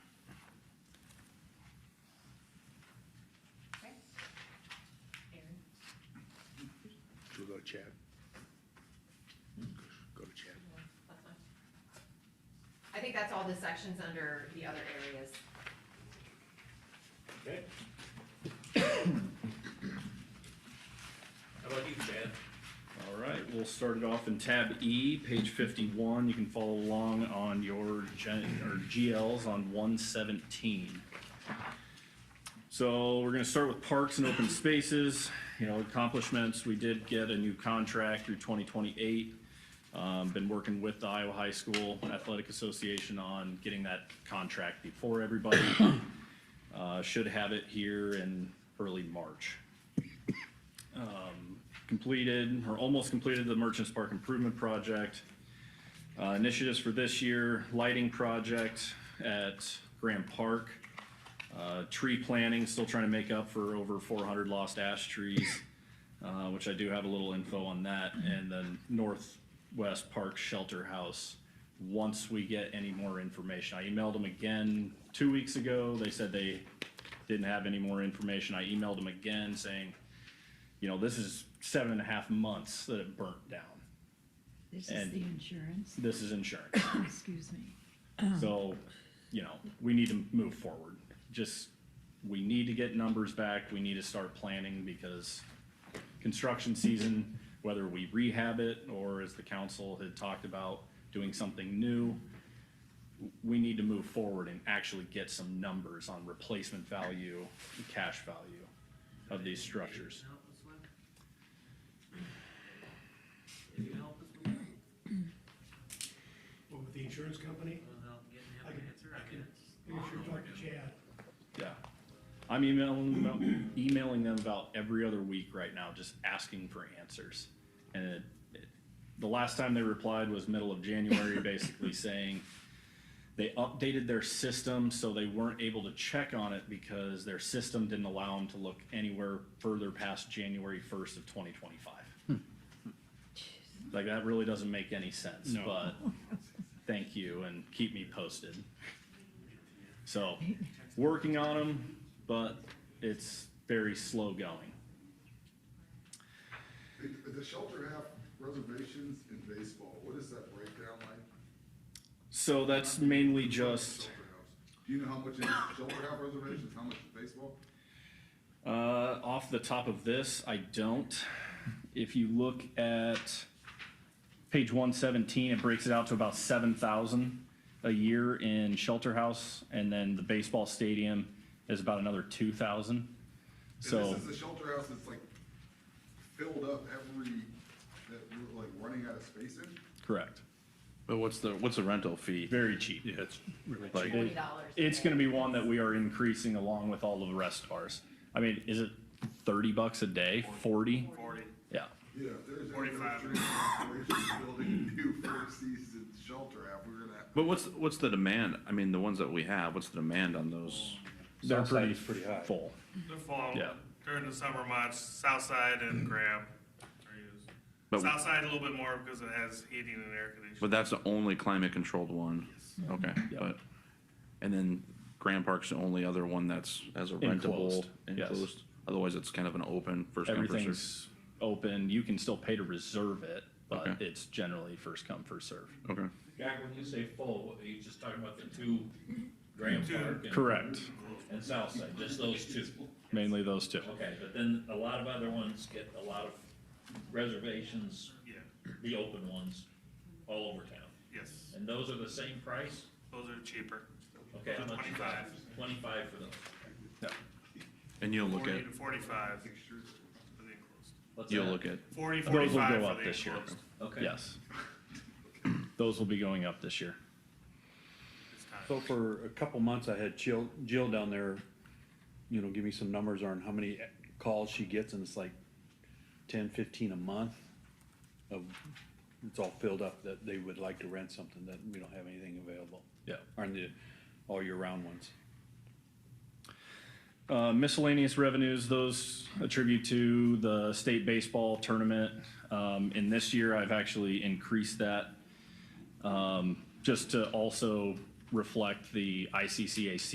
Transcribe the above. Chad. Go to Chad. That's fine. I think that's all the sections under the other areas. Okay. How about you, Chad? All right, we'll start it off in tab E, page fifty-one. You can follow along on your gen, or GLs on one seventeen. So we're gonna start with parks and open spaces, you know, accomplishments. We did get a new contract through twenty twenty-eight. Um, been working with the Iowa High School Athletic Association on getting that contract before everybody. Uh, should have it here in early March completed or almost completed the Merchants Park Improvement Project. Uh, initiatives for this year, lighting project at Graham Park. Uh, tree planting, still trying to make up for over four hundred lost ash trees, uh, which I do have a little info on that. And then Northwest Park Shelter House, once we get any more information. I emailed them again two weeks ago. They said they didn't have any more information. I emailed them again saying, you know, this is seven and a half months that it burnt down. This is And- the insurance, This is insurance. excuse me. So, you know, we need to move forward. Just, we need to get numbers back. We need to start planning because construction season, whether we rehab it or as the council had talked about, doing something new, we need to move forward and actually get some numbers on replacement value and cash value of these structures. Can you help us with that? Well, with the insurance company, Without getting I can- him an answer, I I can- can. you should talk to Chad. Yeah. I'm emailing them about, emailing them about every other week right now, just asking for answers. And it, it, the last time they replied was middle of January, basically saying they updated their system, so they weren't able to check on it because their system didn't allow them to look anywhere further past January first of twenty twenty-five. Like, that really doesn't make any sense, No. but thank you and keep me posted. So, working on them, but it's very slow going. The- The shelter have reservations in baseball, what is that breakdown like? So that's mainly just, Shelter house. Do you know how much is shelter have reservations, how much is baseball? uh, off the top of this, I don't. If you look at page one seventeen, it breaks it out to about seven thousand a year in shelter house, and then the baseball stadium is about another two thousand. And So, this is the shelter house that's like filled up every, that we're like running out of space in? correct, But what's the, what's the rental fee? very cheap. Yeah, it's really Like- cheap. Twenty dollars. It's gonna be one that we are increasing along with all of the rest of ours. I mean, is it thirty bucks a day, forty? Forty. Yeah, Yeah, if there's any 45. restrictions, we're building a new first season shelter house, we're gonna. But what's, what's the demand? I mean, the ones that we have, what's the demand on those? they're pretty is pretty high. full. The fall, Yeah. during the summer months, Southside and Graham are But- used. Southside a little bit more because it has heating and air conditioning. But that's the only climate controlled one? Okay, Yeah. but, and then Grand Park's the only other one that's as a rentable. Enclosed, yes. enclosed. Otherwise, it's kind of an open first come, first served. Everything's open. You can still pay to reserve it, but Okay. it's generally first come, first serve. Okay, Jack, when you say full, what- are you just talking about the two Graham Two. Park and- Correct, and Southside, just those two? mainly those two. Okay, but then a lot of other ones get a lot of reservations, Yeah, the open ones, all over town. yes, And those are the same price? those are cheaper. Okay, how much is that? Twenty-five for those. and you'll look Forty at, to forty-five for the enclosed. What's you'll that? look at, Forty, Those will go forty-five up for the this year. enclosed. Okay. Yes. Those will be going up this year. It's time. So for a couple months, I had Jill, Jill down there, you know, give me some numbers on how many calls she gets, and it's like ten, fifteen a month of, it's all filled up, that they would like to rent something, that we don't have anything available, Yeah. aren't the all year round ones. Uh, miscellaneous revenues, those attribute to the state baseball tournament. Um, and this year, I've actually increased that um, just to also reflect the ICCAC